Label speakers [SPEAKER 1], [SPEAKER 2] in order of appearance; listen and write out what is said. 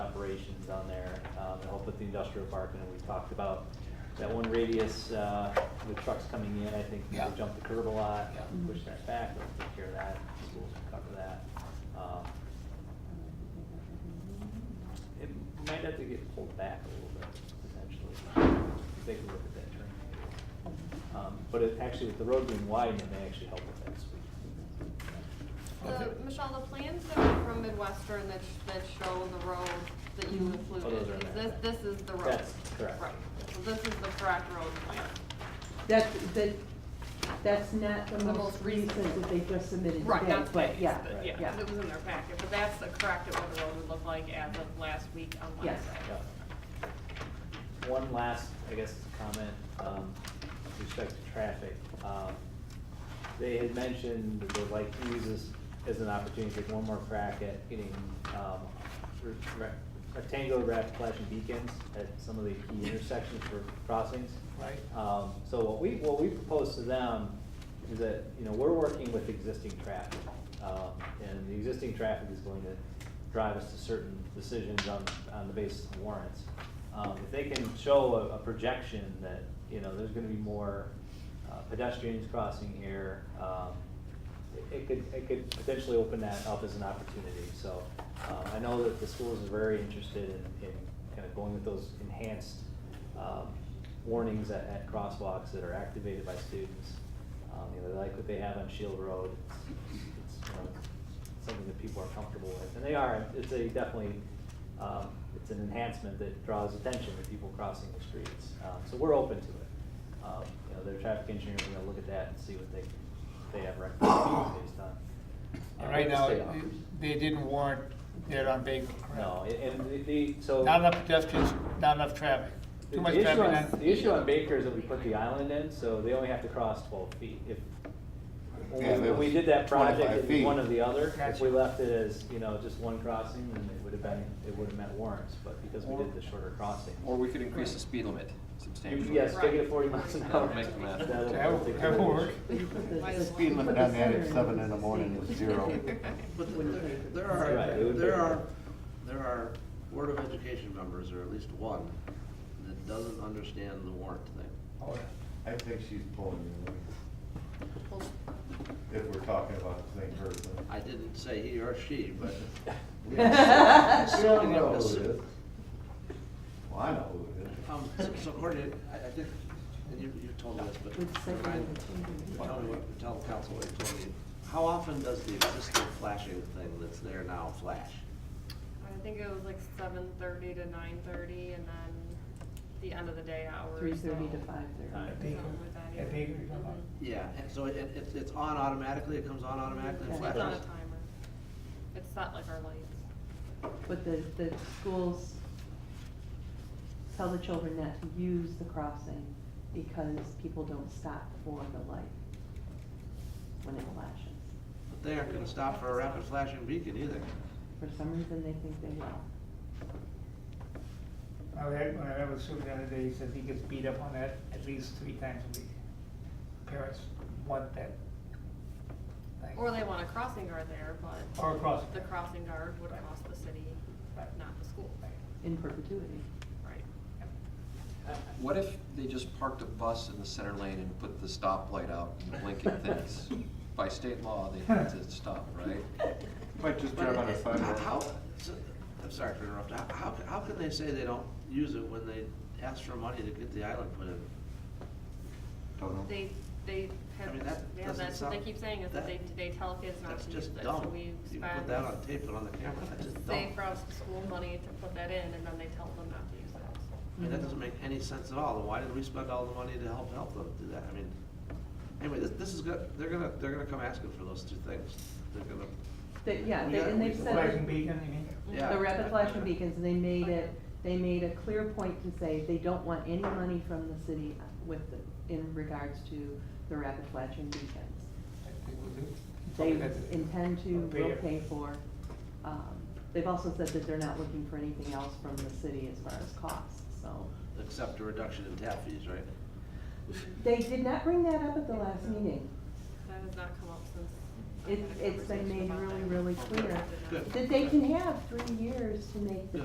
[SPEAKER 1] on there, um, to help with the industrial park, and we talked about that one radius, uh, with trucks coming in, I think
[SPEAKER 2] Yeah.
[SPEAKER 1] people jump the curb a lot,
[SPEAKER 2] Yeah.
[SPEAKER 1] push that back, they'll take care of that, schools will cover that. Um, It might have to get pulled back a little bit, potentially, if they can look at that turn radius. Um, but it, actually, with the road being widened, it may actually help with that speed.
[SPEAKER 3] The, Michelle, the plans that were from Midwestern that, sh- that show the road that you
[SPEAKER 1] Oh, those are
[SPEAKER 3] included,
[SPEAKER 1] in
[SPEAKER 3] is
[SPEAKER 1] there.
[SPEAKER 3] this, this is the road?
[SPEAKER 1] That's correct.
[SPEAKER 3] Right, so this is the correct road plan.
[SPEAKER 4] That, that, that's not the
[SPEAKER 3] The
[SPEAKER 4] most
[SPEAKER 3] most recent.
[SPEAKER 4] recent that they just submitted
[SPEAKER 3] Right,
[SPEAKER 4] today,
[SPEAKER 3] that's what,
[SPEAKER 4] but yeah,
[SPEAKER 1] but
[SPEAKER 4] yeah.
[SPEAKER 3] yeah, it was in their packet, but that's the correct of what the road would look like as of last week on
[SPEAKER 4] Yes.
[SPEAKER 3] Wednesday.
[SPEAKER 1] Yeah. One last, I guess, comment, um, with respect to traffic. Um, They had mentioned that they'd like to use this as an opportunity to take one more crack at getting, um, re- re- rectangular rapid flashing beacons at some of the key intersections for crossings.
[SPEAKER 2] Right.
[SPEAKER 1] Um, so what we, what we propose to them is that, you know, we're working with existing traffic. Um, and the existing traffic is going to drive us to certain decisions on, on the basis of warrants. Um, if they can show a, a projection that, you know, there's gonna be more uh, pedestrians crossing here, um, it- it could, it could potentially open that up as an opportunity. So, uh, I know that the schools are very interested in, in kind of going with those enhanced, um, warnings at, at crosswalks that are activated by students. Um, you know, they like what they have on Shield Road. It's, it's, you know, something that people are comfortable with, and they are, it's a definitely, um, it's an enhancement that draws attention to people crossing the streets. Um, so we're open to it. Um, you know, their traffic engineers are gonna look at that and see what they, they have recommendations based on. uh,
[SPEAKER 2] And right now,
[SPEAKER 1] what the state offers.
[SPEAKER 2] they didn't warrant that on Baker, correct?
[SPEAKER 1] No, and the- the, so.
[SPEAKER 2] Not enough pedestrians, not enough traffic,
[SPEAKER 1] The-
[SPEAKER 2] too much
[SPEAKER 1] The issue
[SPEAKER 2] traffic.
[SPEAKER 1] on,
[SPEAKER 2] on-
[SPEAKER 1] the issue on Baker is that we put the island in, so they only have to cross twelve feet. If, when
[SPEAKER 5] Yeah,
[SPEAKER 1] we-
[SPEAKER 5] that
[SPEAKER 1] when we
[SPEAKER 5] was
[SPEAKER 1] did that project,
[SPEAKER 5] 25
[SPEAKER 1] it was one
[SPEAKER 5] feet.
[SPEAKER 1] or the other. If
[SPEAKER 2] Gotcha.
[SPEAKER 1] we left it as, you know, just one crossing, then it would have been, it would have meant warrants, but because we
[SPEAKER 6] Or-
[SPEAKER 1] did the shorter crossing.
[SPEAKER 6] Or we could increase the speed limit substantially.
[SPEAKER 1] Yes, take it to forty miles an hour.
[SPEAKER 6] That'll make them laugh.
[SPEAKER 1] That'll-
[SPEAKER 2] That would- that would work.
[SPEAKER 4] You put the-
[SPEAKER 3] Might as
[SPEAKER 4] the-
[SPEAKER 3] well.
[SPEAKER 4] you
[SPEAKER 3] Speed
[SPEAKER 4] put
[SPEAKER 5] limit
[SPEAKER 4] the
[SPEAKER 5] on that at
[SPEAKER 4] center in,
[SPEAKER 5] seven in
[SPEAKER 4] it's
[SPEAKER 5] the morning
[SPEAKER 4] safe.
[SPEAKER 5] is zero.
[SPEAKER 7] But
[SPEAKER 4] Wouldn't
[SPEAKER 7] there-
[SPEAKER 4] take-
[SPEAKER 7] there
[SPEAKER 1] Right, it
[SPEAKER 7] are,
[SPEAKER 1] would be-
[SPEAKER 7] there are, there are Board of Education members, or at least one, that doesn't understand the warrant thing.
[SPEAKER 2] Oh,
[SPEAKER 5] I think she's pulling you,
[SPEAKER 3] Well,
[SPEAKER 5] if we're talking about the same person.
[SPEAKER 7] I didn't say he or she, but. um,
[SPEAKER 5] We all know who it is. Well, I know who it is.
[SPEAKER 7] Um, so- so Courtney, I, I think, and you, you told me this, but
[SPEAKER 4] With second
[SPEAKER 7] remind,
[SPEAKER 4] opportunity.
[SPEAKER 7] tell me what, tell the council what you told me. How often does the existing flashing thing that's there now flash?
[SPEAKER 3] I think it was like seven thirty to nine thirty, and then the end of the day hours.
[SPEAKER 4] Three thirty
[SPEAKER 3] so-
[SPEAKER 4] to five thirty.
[SPEAKER 1] Alright.
[SPEAKER 2] At Baker,
[SPEAKER 3] Something like that, yeah.
[SPEAKER 2] at Baker, you're talking about.
[SPEAKER 7] Yeah, and so it, it, it's- it's on automatically, it comes on automatically and
[SPEAKER 4] Yeah.
[SPEAKER 3] It's on a
[SPEAKER 7] flashes?
[SPEAKER 3] timer. It's set like our lights.
[SPEAKER 4] But the, the schools tell the children not to use the crossing because people don't stop for the light when it flashes.
[SPEAKER 7] But they aren't gonna stop for a rapid flashing beacon either.
[SPEAKER 4] For some reason, they think they will.
[SPEAKER 2] I had, when I met with Sue the other day, he says he gets beat up on that at least three times a week. Parents want that. thing.
[SPEAKER 3] Or they want a crossing guard there, but.
[SPEAKER 2] Or a crossing
[SPEAKER 3] The
[SPEAKER 2] guard.
[SPEAKER 3] crossing guard would
[SPEAKER 2] Right.
[SPEAKER 3] cost the city,
[SPEAKER 2] Right.
[SPEAKER 3] not the school,
[SPEAKER 2] Right.
[SPEAKER 4] in perpetuity.
[SPEAKER 3] right?
[SPEAKER 1] Uh,
[SPEAKER 6] What if they just parked a bus in the center lane and put the stoplight out and blinking things? By state law, they had to stop, right?
[SPEAKER 5] Might just
[SPEAKER 7] But
[SPEAKER 5] drive on
[SPEAKER 7] it-
[SPEAKER 5] a
[SPEAKER 7] it-
[SPEAKER 5] sidewalk.
[SPEAKER 7] How, so- I'm sorry for interrupting, how, how, how can they say they don't use it when they ask for money to get the island put in?
[SPEAKER 5] Don't know.
[SPEAKER 3] They, they
[SPEAKER 7] I
[SPEAKER 3] have,
[SPEAKER 7] mean, that
[SPEAKER 3] yeah,
[SPEAKER 7] doesn't
[SPEAKER 3] that's what they
[SPEAKER 7] sound-
[SPEAKER 3] keep saying, is that they,
[SPEAKER 7] that-
[SPEAKER 3] they tell kids not
[SPEAKER 7] That's
[SPEAKER 3] to use
[SPEAKER 7] just
[SPEAKER 3] it, so
[SPEAKER 7] dumb,
[SPEAKER 3] we
[SPEAKER 7] you put
[SPEAKER 3] spend.
[SPEAKER 7] that on tape and on the camera, that's just dumb.
[SPEAKER 3] They cross school money to put that in, and then they tell them not to use it, so.
[SPEAKER 7] I mean, that doesn't make any sense at all, then why did we spend all the money to help, help them do that, I mean, anyway, this, this is good, they're gonna, they're gonna come asking for those two things, they're gonna,
[SPEAKER 4] They, yeah,
[SPEAKER 7] We
[SPEAKER 4] they,
[SPEAKER 7] got-
[SPEAKER 4] and
[SPEAKER 7] we
[SPEAKER 4] they've
[SPEAKER 7] got
[SPEAKER 4] said.
[SPEAKER 2] Flashing beacon, you mean?
[SPEAKER 3] Mm-hmm.
[SPEAKER 7] yeah.
[SPEAKER 4] The
[SPEAKER 7] I-
[SPEAKER 4] rapid flashing beacons, they made
[SPEAKER 3] Okay.
[SPEAKER 4] it, they made a clear point to say they don't want any money from the city with, the- in regards to the rapid flashing beacons.
[SPEAKER 2] I think we'll do.
[SPEAKER 4] They
[SPEAKER 2] Something that's-
[SPEAKER 4] intend to,
[SPEAKER 2] Pay
[SPEAKER 4] will
[SPEAKER 2] it.
[SPEAKER 4] pay for. Um, They've also said that they're not looking for anything else from the city as far as costs, so.
[SPEAKER 7] Accept a reduction in tap fees, right?
[SPEAKER 4] They did not bring that up at the last meeting.
[SPEAKER 3] That has not come up since. I
[SPEAKER 4] It,
[SPEAKER 3] had a
[SPEAKER 4] it's been
[SPEAKER 3] conversation
[SPEAKER 4] made
[SPEAKER 3] about
[SPEAKER 4] really,
[SPEAKER 3] that.
[SPEAKER 4] really clear
[SPEAKER 3] Good.
[SPEAKER 4] that they can have three years to make the